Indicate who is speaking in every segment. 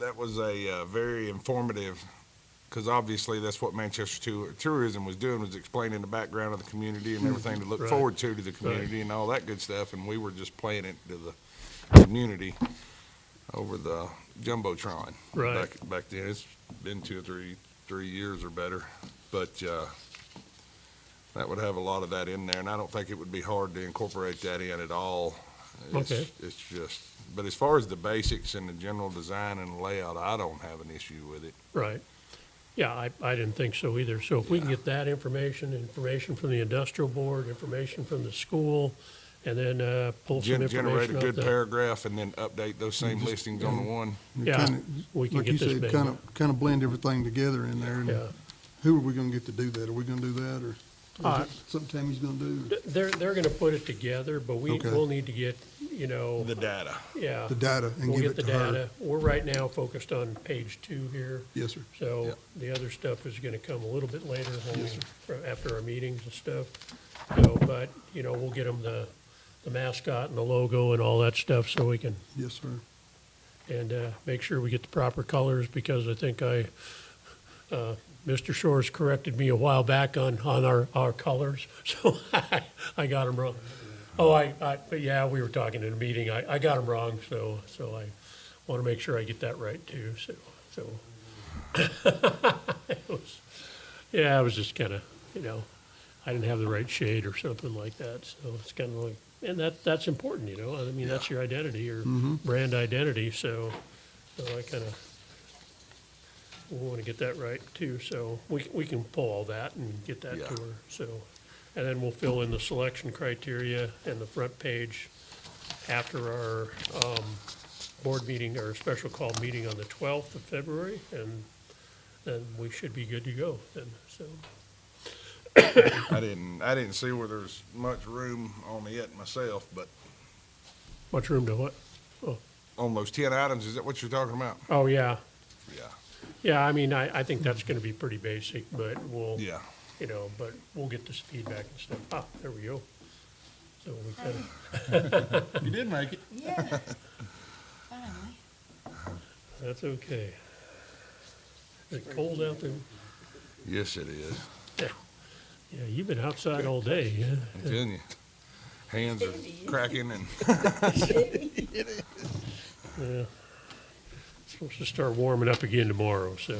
Speaker 1: that was a uh, very informative, because obviously that's what Manchester Tou- Tourism was doing, was explaining the background of the community and everything to look
Speaker 2: Hmm, Right.
Speaker 1: forward to to the community and all that good stuff, and we were just playing it to the community over the jumbotron.
Speaker 2: Right.
Speaker 1: Back, back then, it's been two or three, three years or better, but, uh, that would have a lot of that in there, and I don't think it would be hard to incorporate that in at all. It's-
Speaker 2: Okay.
Speaker 1: It's just, but as far as the basics and the general design and layout, I don't have an issue with it.
Speaker 2: Right. Yeah, I, I didn't think so either. So if we can get that information, information from the industrial board, information from the school, and then uh, pull some
Speaker 1: Gen- Generate a
Speaker 2: information Mm-hmm. off
Speaker 1: good
Speaker 2: the.
Speaker 1: paragraph and then update those same
Speaker 3: Just-
Speaker 1: listings on the one.
Speaker 2: Yeah,
Speaker 3: Kinda-
Speaker 2: we can
Speaker 3: Like you
Speaker 2: get this
Speaker 3: said,
Speaker 2: big.
Speaker 3: kind of, kind of blend everything together in there.
Speaker 2: Yeah.
Speaker 3: and Who are we gonna get to do that? Are we gonna do that, or
Speaker 2: Uh,
Speaker 3: is it something he's gonna do?
Speaker 2: They're, they're going to put it together, but we,
Speaker 3: Okay.
Speaker 2: we'll need to get, you know,
Speaker 1: The data.
Speaker 2: yeah.
Speaker 3: The data and
Speaker 2: We'll
Speaker 3: give
Speaker 2: get
Speaker 3: it
Speaker 2: the
Speaker 3: to her.
Speaker 2: data. We're right now focused on page two here.
Speaker 3: Yes, sir.
Speaker 2: So
Speaker 1: Yeah.
Speaker 2: the other stuff is gonna come a little bit later, when we- for- after our meetings and stuff. So, but, you know, we'll get them the, the mascot and the logo and all that stuff, so we can,
Speaker 3: Yes, sir.
Speaker 2: and, uh, make sure we get the proper colors, because I think I, uh, Mr. Shores corrected me a while back on, on our, our colors, so I, I got them wrong. Oh, I, I, but yeah, we were talking in a meeting, I, I got them wrong, so, so I wanna make sure I get that right too, so, so. It was, yeah, I was just kind of, you know, I didn't have the right shade or something like that. So it's kind of like, and that that's important, you know. I mean, that's your identity, your brand identity. So, so I kind of we want to get that right too. So we we can pull all that and get that
Speaker 1: Yeah.
Speaker 2: to her. So, and then we'll fill in the selection criteria and the front page after our um, board meeting or special call meeting on the twelfth of February and then we should be good to go then, so.
Speaker 1: I didn't, I didn't see where there's much room on it myself, but
Speaker 2: Much room to what?
Speaker 1: on those ten items, is that what you're talking about?
Speaker 2: Oh, yeah,
Speaker 1: Yeah,
Speaker 2: yeah, I mean, I, I think that's gonna be pretty basic, but we'll,
Speaker 1: yeah.
Speaker 2: you know, but we'll get this feedback and stuff, ah, there we go. So we kind of,
Speaker 1: You did make it.
Speaker 4: Yeah. Finally.
Speaker 2: that's okay. Is it cold out there?
Speaker 1: Yes, it is.
Speaker 2: Yeah, you've been outside all day, yeah?
Speaker 1: I'm telling you. Hands are cracking and
Speaker 2: Supposed to start warming up again tomorrow, so.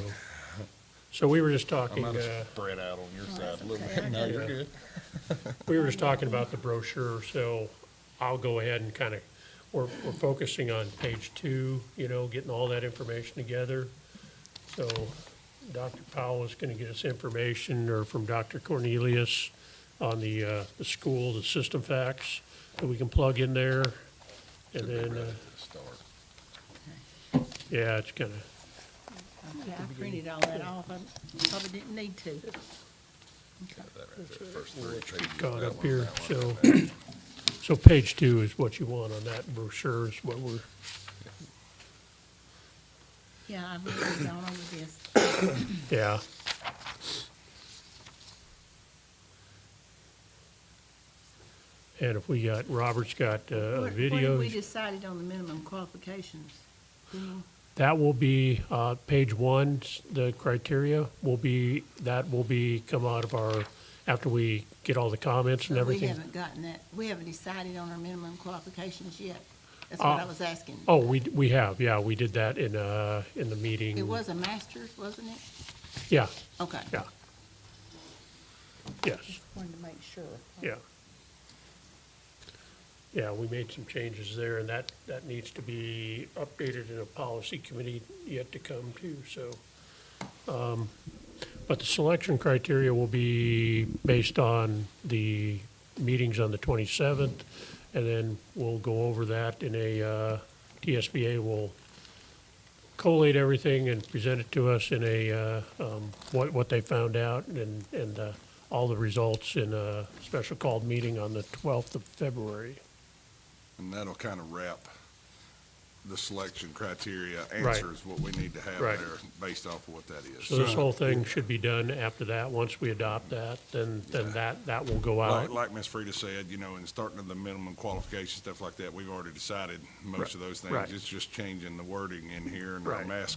Speaker 2: So we were just
Speaker 1: I
Speaker 2: talking,
Speaker 1: might
Speaker 2: uh,
Speaker 1: have spread out on your side
Speaker 4: Oh, that's
Speaker 1: a little
Speaker 4: okay.
Speaker 1: bit. No, you're
Speaker 2: Yeah.
Speaker 1: good.
Speaker 2: We were just talking about the brochure, so I'll go ahead and kind of, we're, we're focusing on page two, you know, getting all that information together. So Dr. Powell is going to get us information, or from Dr. Cornelius, on the, uh, the school, the system facts that we can plug in there. And then, uh,
Speaker 1: Start.
Speaker 2: yeah, it's kind of,
Speaker 4: Yeah, I printed all that off. I probably didn't need to.
Speaker 2: gone up here, so. So page two is what you want on that brochure is what we're,
Speaker 4: Yeah, I've really gone over this.
Speaker 2: yeah. And if we got, Robert's got uh,
Speaker 4: Where- Where did we
Speaker 2: videos,
Speaker 4: decided on the minimum qualifications? Hmm,
Speaker 2: that will be, uh, page one, s- the criteria will be, that will be, come out of our, after we get all the comments and
Speaker 4: but Oh, We
Speaker 2: everything.
Speaker 4: haven't gotten that. We haven't decided on our minimum qualifications yet. That's what I
Speaker 2: Uh,
Speaker 4: was asking.
Speaker 2: Oh, we, d- we have, yeah, we did that in, uh, in the meeting.
Speaker 4: It was a master's, wasn't it?
Speaker 2: Yeah,
Speaker 4: Okay.
Speaker 2: yeah. Yes.
Speaker 4: Wanted to make sure.
Speaker 2: Yeah. Yeah, we made some changes there, and that, that needs to be updated in a policy committee yet to come too, so. um, But the selection criteria will be based on the meetings on the twenty-seventh, and then we'll go over that in a, uh, TSBA will collate everything and present it to us in a, uh, um, what, what they found out and, and uh, all the results in a special called meeting on the 12th of February.
Speaker 1: And that'll kind of wrap the selection criteria,
Speaker 2: Right.
Speaker 1: answers what we need to have
Speaker 2: Right.
Speaker 1: there based off of what that is.
Speaker 2: So this whole thing should be done after that. Once we adopt that, then, then that, that will go
Speaker 1: Like,
Speaker 2: out.
Speaker 1: like Ms. Frida said, you know, in starting of the minimum qualification, stuff like that, we've already decided most of those things.
Speaker 2: Right.
Speaker 1: It's just changing the wording in here and our
Speaker 2: Right.
Speaker 1: mask